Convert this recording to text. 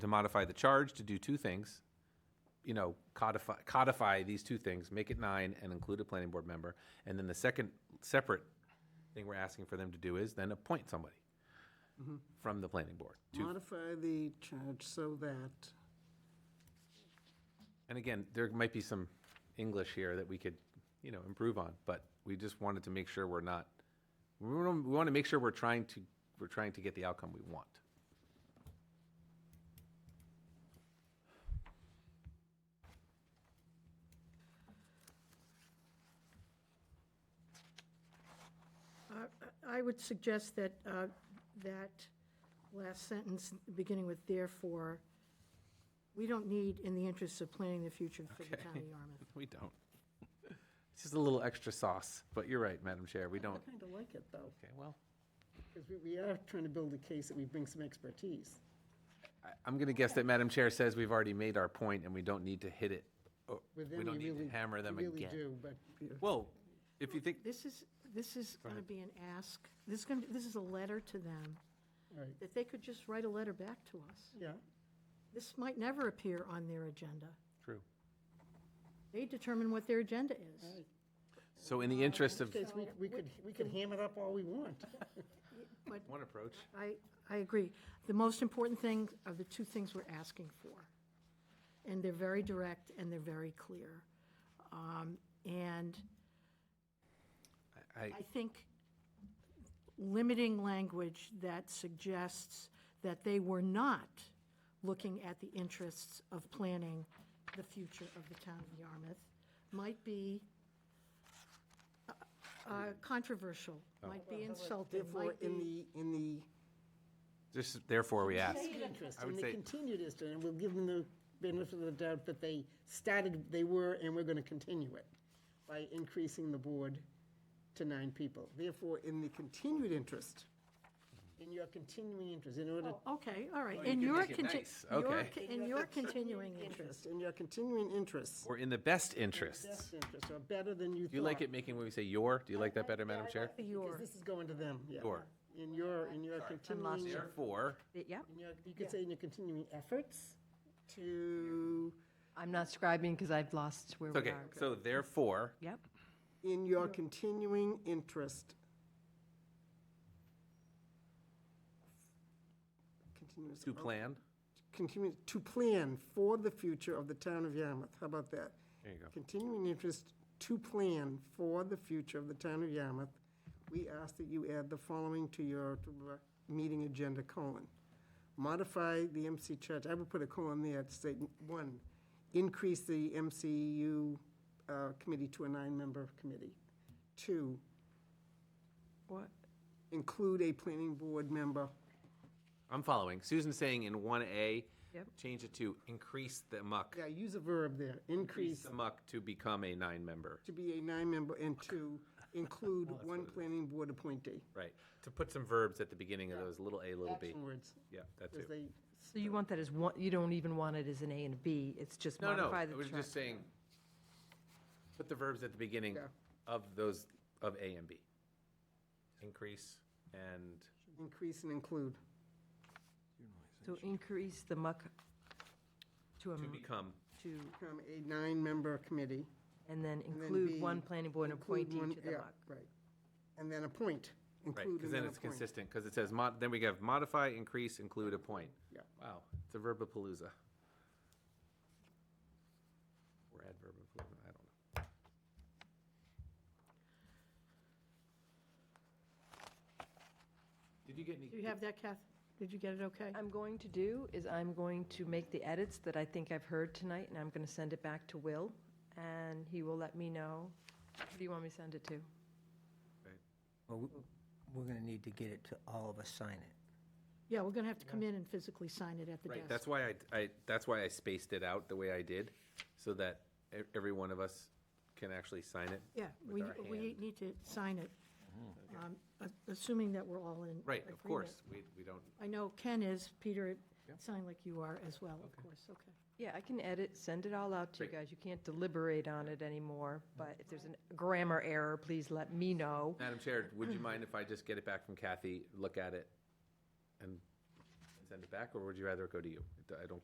to modify the charge to do two things. You know, codify, codify these two things, make it nine and include a planning board member. And then the second separate thing we're asking for them to do is then appoint somebody from the planning board. to- Modify the charge so that, And again, there might be some English here that we could, you know, improve on, but we just wanted to make sure we're not, we want, we want to make sure we're trying to, we're trying to get the outcome we want. I would suggest that, uh, that last sentence, beginning with therefore, we don't need, in the interests of planning the future for the town of Yarmouth. We don't. It's just a little extra sauce, but you're right, Madam Chair, we I don't. kind of like it, though, Okay, well, because we, we are trying to build a case that we bring some expertise. I- I'm going to guess that Madam Chair says we've already made our point and we don't need to hit it. or With We them, don't you need to really- hammer them you really again. do, but you- Well, if you think, This is, this is going to be an ask, this is going, to this is a letter to them, right, that they could just write a letter back to us. yeah, This might never appear on their agenda. true. They determine what their agenda is. right. So in the interest of Because we, we could, we could ham it up all we want. But one approach, I, I agree. The most important thing are the two things we're asking for. And they're very direct and they're very clear. Um, And I, I think limiting language that suggests that they were not looking at the interests of planning the future of the town of Yarmouth might be uh, uh, controversial, might be insulting, Therefore, might in be, the, in the just therefore we ask. vested interest, I would and they say- continued interest, and we'll give them the benefit of the doubt that they started, they were, and we're going to continue it by increasing the board to nine people. Therefore, in the continued interest, in your continuing interest, in order, Oh, okay, all right. you In can your, make it conti- nice, your okay. co- in your continuing interest. interest, in your continuing interest, Or in the best interests. best interest, or better than you thought. Do you like it making when we say your? Do you like that better, Madam Chair? Your. Because this is going to them, yeah. Your. In your, in your continuing, in Therefore, Yep, your- you could say in your continuing efforts to, I'm not scribing because I've lost where it's we okay, are. so therefore, Yep, in your continuing interest. Continuous. to plan, Continue, to plan for the future of the town of Yarmouth. How about that? There you go. Continuing interest to plan for the future of the town of Yarmouth. We ask that you add the following to your to the meeting agenda, colon. Modify the MC charge, I would put a colon there to say, one, increase the MCU uh, committee to a nine-member committee. Two, what, include a planning board member. I'm following. Susan's saying in one A, Yep. change it to increase the muck. Yeah, use a verb there, increase Increase the muck to become a nine-member, to be a nine-member and to include one planning board appointee. right? To put some verbs at the beginning of those, little A, little B. Action words, Yeah, that's because it. they, so you want that as one, you don't even want it as an A and a B, it's just No, no, modify I the was chart. just saying, put the verbs at the beginning Yeah. of those, of A and B. Increase and increase and include. So increase the muck to, a to m- become, to, Become a nine-member committee. and then then include B, one planning board include appointee one- to the yeah, muck. Right. And then appoint, right, include because and then then it's appoint. consistent, because it says mod, then we have modify, increase, include, appoint. Yeah. Wow, it's a verbapalooza. Or adverbapalooza, I don't know. Did you get any? Do you have that, Kath? Did you get it okay? I'm going to do is I'm going to make the edits that I think I've heard tonight, and I'm going to send it back to Will, and he will let me know. Who do you want me to send it to? Well, we- we're going to need to get it to all of us sign it. Yeah, we're going to have to come in and physically sign it at the Right, desk. that's why I, I, that's why I spaced it out the way I did, so that e- every one of us can actually sign it. Yeah, we, our we hand. Mm-hmm. need to sign it, um, a- assuming that we're all in. Right, of agreement. course, we, we don't, I know Ken is, Peter, it sounded like you are as well, of course, okay. Yeah, I can edit, send it all out to you Great. guys. You can't deliberate on it anymore, but if there's a grammar error, please let me know. Madam Chair, would you mind if I just get it back from Kathy, look at it, and send it back, or would you rather it go to you? I don't